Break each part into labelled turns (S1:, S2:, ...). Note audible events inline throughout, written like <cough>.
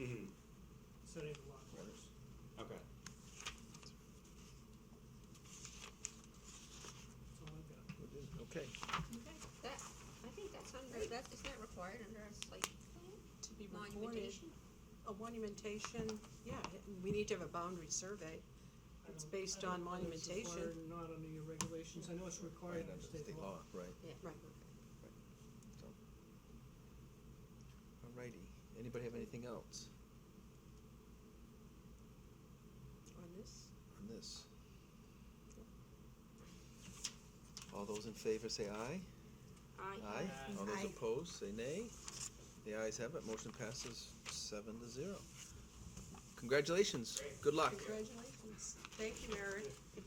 S1: Mm-hmm.
S2: setting the lot orders.
S3: Okay.
S2: That's all I've got.
S1: Okay,
S4: Okay, that, I think that's under, that, is that required under a site
S5: to be recorded.
S4: monumentation?
S5: A monumentation, yeah, it- we need to have a boundary survey.
S2: I
S5: It's
S2: don't-
S5: based
S2: I don't
S5: on
S2: know if it's
S5: monumentation.
S2: required or Not under your regulations, I know it's
S1: right
S2: required
S1: under
S2: under
S1: state law, right,
S4: Yeah.
S5: Right.
S1: so. Alrighty, anybody have anything else
S5: On this?
S1: on this? All those in favor say aye? Aye. All those
S5: Aye.
S1: opposed, say nay. The ayes have it, motion passes seven to zero. Congratulations, good luck.
S5: Congratulations. Thank you, Mary. And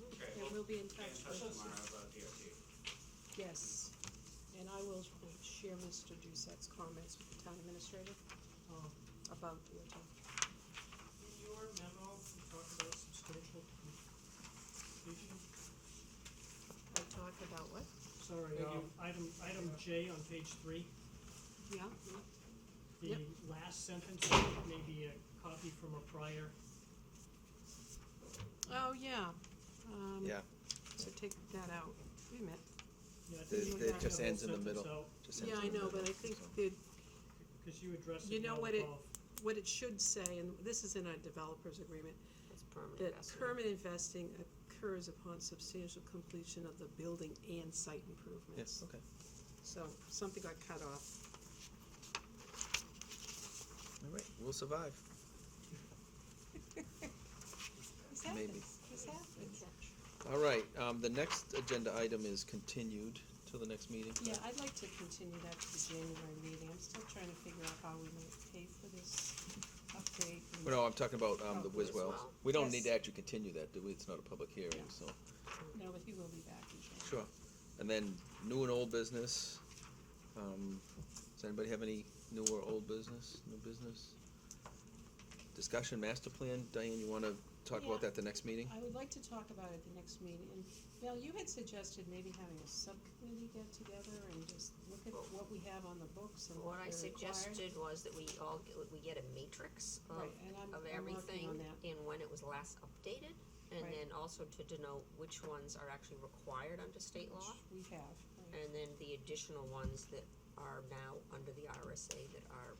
S5: we'll be in touch. Yes. And I will share Mr. Doucette's comments with the town administrator
S2: Um,
S5: about the hotel.
S2: In your memo, you talk about substantial completion.
S5: I talk about what?
S2: Sorry, um, item, item J on page three,
S5: Yeah?
S2: the
S5: Yep.
S2: last sentence, it may be a copy from a prior.
S5: Oh, yeah. Um,
S1: Yeah,
S5: So take that out. Wait a minute.
S2: Yeah, I
S1: They-
S2: think you
S5: they
S2: have
S1: just
S2: the whole
S1: ends in the
S2: sentence
S1: middle.
S2: out,
S1: just
S5: Yeah,
S1: enter
S5: I
S1: the
S5: know, but
S1: middle,
S5: I think
S1: so.
S5: the
S2: Cause you addressed it.
S5: You know
S2: now
S5: what it-
S2: above.
S5: what it should say, and this is in our developer's agreement,
S4: It's permanent
S5: that
S4: vesting.
S5: permanent investing occurs upon substantial completion of the building and site
S1: Yes,
S5: improvements.
S1: okay.
S5: So something got cut off.
S1: All right, we'll survive. Maybe. All right, um, the next agenda item is continued till the next meeting.
S5: Yeah, I'd like to continue that to the January meeting. I'm still trying to figure out how we might pay for this upgrade. and-
S1: Well, No, I'm talking about, um, the
S5: Oh, the
S1: Wiswells.
S4: Wiswell.
S1: We don't need
S5: Yes.
S1: to actually continue that, do we? It's not a public hearing,
S5: Yeah.
S1: so.
S5: No, but he will be back in January.
S1: Sure. And then new and old business. Um, does anybody have any new or old business, new business? Discussion master plan. Diane, you wanna talk
S5: Yeah.
S1: about that the next meeting?
S5: I would like to talk about it the next meeting, and Bill, you had suggested maybe having a subcommittee get together and just look at what we have on the books and what
S4: What I
S5: we're required.
S4: suggested was that we all, get- we get a matrix of,
S5: Right, and I'm,
S4: of
S5: I'm working
S4: everything
S5: on that,
S4: and when it was last updated. And
S5: Right.
S4: then also to denote which ones are actually required under state law.
S5: which we have, right.
S4: And then the additional ones that are now under the RSA that are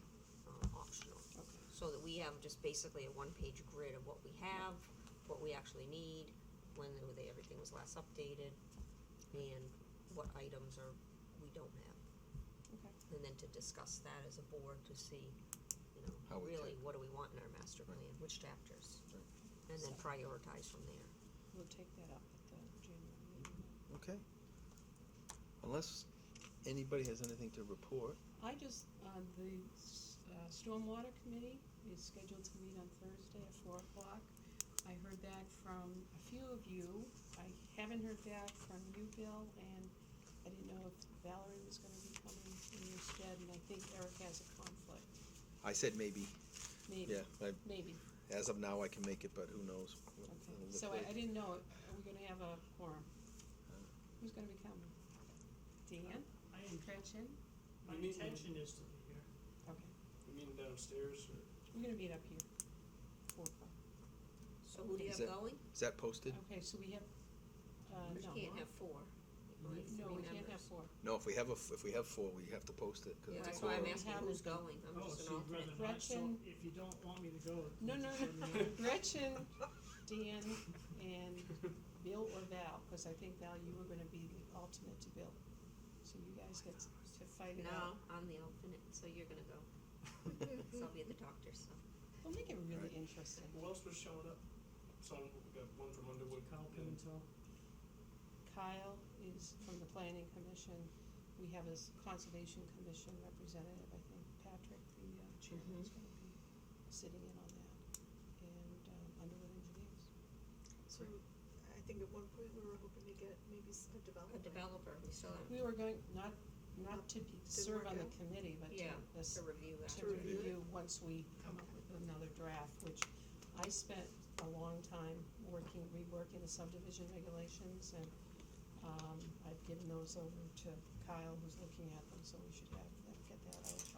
S4: um, optional.
S5: okay,
S4: So that we have just basically a one-page grid of what we have, what we actually need, when they- they- everything was last updated, and what items are, we don't have.
S5: okay,
S4: And then to discuss that as a board to see, you
S1: How
S4: know,
S1: we
S4: really, what do we want in our master plan, which chapters? And then prioritize from there.
S5: we'll take that up at the January meeting.
S1: Okay. Unless anybody has anything to report.
S5: I just, uh, the, s- uh, Stormwater Committee is scheduled to meet on Thursday at four o'clock. I heard back from a few of you, I haven't heard back from you, Bill, and I didn't know if Valerie was gonna be coming in your stead, and I think Eric has a conflict,
S1: I said maybe,
S5: maybe,
S1: yeah, I,
S5: maybe,
S1: as of now, I can make it, but who knows? what it'll
S5: okay.
S1: look
S5: So I,
S1: like.
S5: I didn't know, are we gonna have a quorum? Who's gonna be coming? Dan,
S2: I
S4: Uh,
S2: am-
S5: Gretchen?
S2: My intention is to be here.
S5: Okay,
S6: You mean downstairs or?
S5: we're gonna meet up here, four o'clock.
S4: So who do you
S1: Is
S4: have
S1: that-
S4: going?
S1: Is that posted?
S5: Okay, so we have, uh,
S4: We
S5: no.
S4: can't have four.
S5: we-
S4: Only
S5: No,
S4: three
S5: we can't have
S4: members.
S5: four.
S1: No, if we have a, f- if we have four, we have to post it, cause
S4: Yeah,
S1: it's a
S4: that's why I'm
S1: quorum.
S5: ask-
S4: asking
S5: Haven't
S4: who's
S5: been.
S4: going, I'm
S2: Oh, so
S4: just an alternate.
S2: you'd rather not, so
S5: Gretchen-
S2: if you don't want me to go.
S5: No, no,
S2: just
S5: no,
S2: let me
S4: <laughs>
S2: know.
S5: <laughs> Gretchen, Dan, and Bill or Val, because I think Val, you were gonna be the alternate to Bill. So you guys get to fight it out.
S4: No, I'm the alternate, so you're gonna
S5: <laughs>
S4: go. So I'll be at the doctor's, so.
S5: We'll make it really
S1: Right.
S5: interesting.
S6: Who else was showing up? So we got one from Underwood.
S2: Kyle
S6: and
S2: Pimentel.
S5: Kyle is from the planning commission. We have his conservation commission representative, I think Patrick, the uh, chairman, is gonna be sitting in on that. And um, Underwood Engineers.
S7: So I think at one point we were hoping to get maybe s- a
S4: A
S7: developer.
S4: developer, we still have
S5: We were going, not, not to be, serve
S7: work
S5: on the
S7: out?
S5: committee, but to,
S4: Yeah,
S5: this,
S4: to review that.
S5: to review once we come up with another draft, which I spent a long time working, reworking the subdivision regulations and, um, I've given those over to Kyle who's looking at them, so we should have, that- get that out